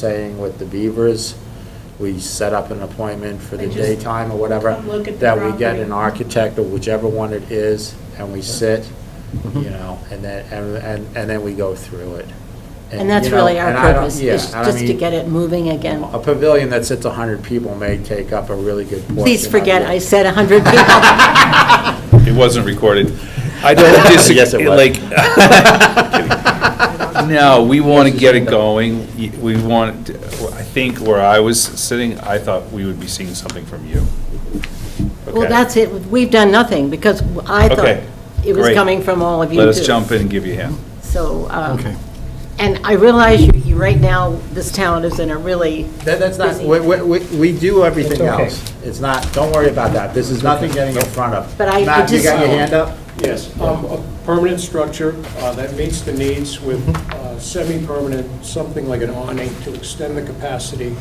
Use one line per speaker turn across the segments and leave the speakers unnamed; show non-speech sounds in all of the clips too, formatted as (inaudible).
saying with the Beavers, we set up an appointment for the
They just
daytime or whatever,
come look at the
that we get an
property.
architect or whichever one it is, and we sit,
Mm-hmm.
you know, and then, and, and and then we go through it.
And that's
you know,
really our
and I don't-
purpose,
yeah,
is
and I
just to
mean,
get it moving again.
A pavilion that sits 100 people may take up a really good portion.
Please
of
forget
it.
I said 100
(laughs)
It
people.
wasn't recorded. I don't disagree,
Yes, it was.
like,
(laughs)
(laughs) no, we want to get it going. Y- We want, I think where I was sitting, I thought we would be seeing something from you.
Well,
Okay.
that's it, we've done nothing, because I
Okay,
thought it was
great.
coming from all of you, too.
Let us jump in and give you a hand.
So, um, and I realize you, you- right now, this town is in a really,
That- That's not,
Busy.
we, we, we- we do everything else. It's not, don't worry about that. This is nothing getting in front of.
But I- I
Matt, you
just-
got your hand up?
Yes, um, a permanent structure uh, that meets the needs with uh, semi-permanent, something like an awning to extend the capacity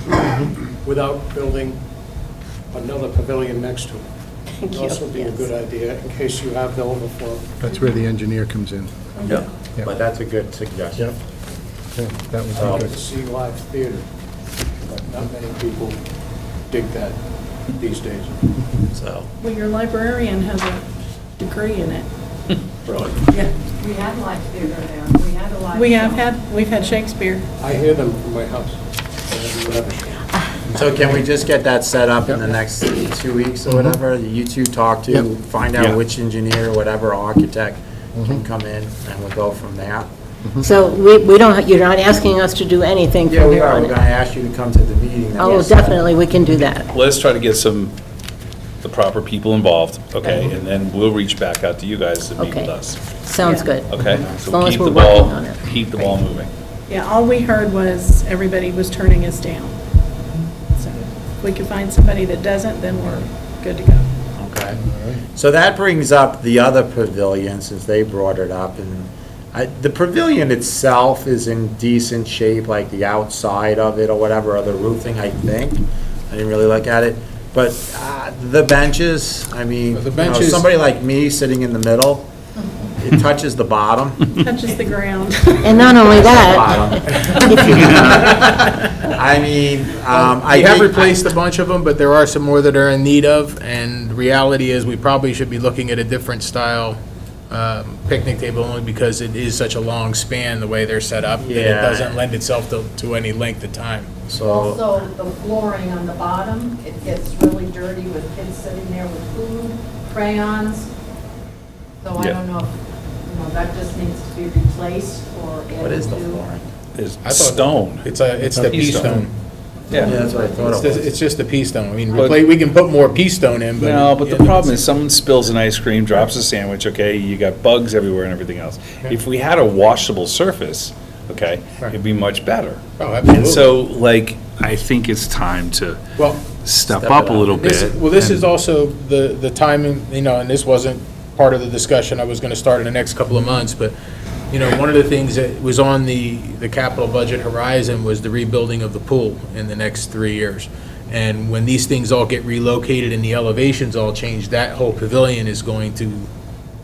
without building another pavilion next to it.
Thank you,
Also be a
yes.
good idea in case you have the overflow.
That's where the engineer comes in.
Yeah.
Yeah.
But that's a good suggestion.
Yeah, That
I
would
like
be
to
good.
see live theater, but not many people dig that these days.
So,
Well, your librarian has a degree in it. Yeah,
We had live theater there, we had a live.
We have
show.
had, we've had Shakespeare.
I hear them from my house. I haven't been up there.
so can we just get that set up in the next two weeks or whatever? You two talk to,
Yep.
find
Yeah.
out which engineer, whatever architect can come in, and we'll go from there.
Mm-hmm. so we, we don't, you're not asking us to do anything
Yeah,
from
we
here
are. We're
on
gonna Mm-hmm.
out.
ask you to come to the meeting. that
Oh,
was set.
definitely, we can do that.
Let us try to get some, the proper people involved, okay? And then we'll reach back out to you guys to meet with
Okay.
us,
Sounds
Yeah.
good.
okay?
As long
So
as
keep
we're
the
working
ball,
on it.
keep the ball moving.
Yeah, all we heard was everybody was turning us down. So if we can find somebody that doesn't, then we're good to go.
Okay. So that brings up the other pavilion, since they brought it up, and I, the pavilion itself is in decent shape, like the outside of it or whatever, or the roofing, I think. I didn't really look at it, but, uh, the benches, I mean,
The
you know,
benches-
somebody like me sitting in the middle,
(laughs)
it touches the bottom.
Touches (laughs) the ground.
And not only that,
(laughs)
Bottom.
if you,
I mean, um, I
We have
think-
replaced a bunch of them, but there are some more that are in need of, and reality is, we probably should be looking at a different style um, picnic table, only because it is such a long span, the way they're set up, that it
Yeah.
doesn't lend itself to, to any length of time.
So,
Also, the flooring on the bottom, it gets really dirty with kids sitting there with food, crayons. So I
Yeah.
don't know, if, you know, that just needs to be replaced or added to.
what is the flooring?
There's
I thought-
stone.
It's a, it's the pea
P-stone.
stone.
Yeah, that's what I thought
It's
it was.
the- it's just the pea stone. I mean,
But-
repla- we can put more pea stone in, but.
No, but the problem is someone spills an ice cream, drops a sandwich, okay, you got bugs everywhere and everything else. If we had a washable surface, okay, it'd be much better.
Oh,
And
absolutely.
so, like, I think it's time to
Well,
step
Step
up
it
a
up.
little
This-
bit.
Well, this is
and-
also the, the timing, you know, and this wasn't part of the discussion I was going to start in the next couple of months, but, you know, one of the things that was on the, the capital budget horizon was the rebuilding of the pool in the next three years. And when these things all get relocated and the elevations all change, that whole pavilion is going to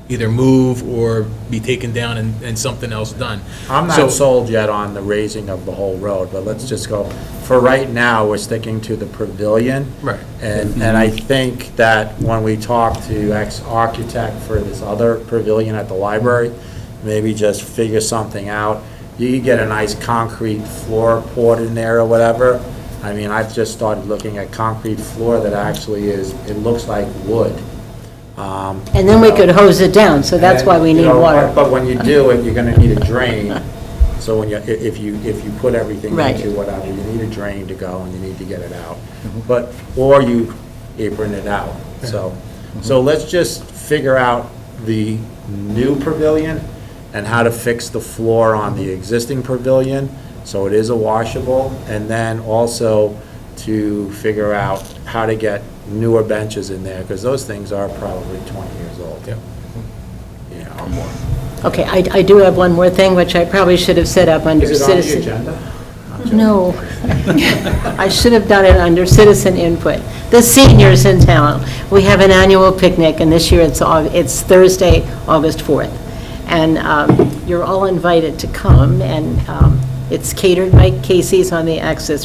either move or be taken down and, and something else done.
I'm
So-
not sold yet on the raising of the whole road, but let's just go, for right now, we're sticking to the pavilion.
Right. Mm-hmm.
And, and I think that when we talk to ex-architect for this other pavilion at the library, maybe just figure something out. You could get a nice concrete floor poured in there or whatever. I mean, I've just started looking at concrete floor that actually is, it looks like wood. Um,
and then we could hose it down, so that's why we
and, you
need
know,
water.
But when you do it, you're gonna need a drain, so when you, i- if you, if you put everything
Right.
into whatever, you need a drain to go and you need to get it out. But, or you apron it out, so, so let's just figure out the new pavilion and how to fix the floor on the existing pavilion, so it is a washable, and then also to figure out how to get newer benches in there, because those things are probably twenty years old.
Yep.
Yeah, or more.
Okay, I, I do have one more thing, which I probably should have set up under
Is it on the
citizen.
agenda?
No. (laughs) I should have done it under citizen input. The seniors in town, we have an annual picnic, and this year it's, Au- it's Thursday, August 4th. And um, you're all invited to come, and um, It's catered, Mike Casey's on the Access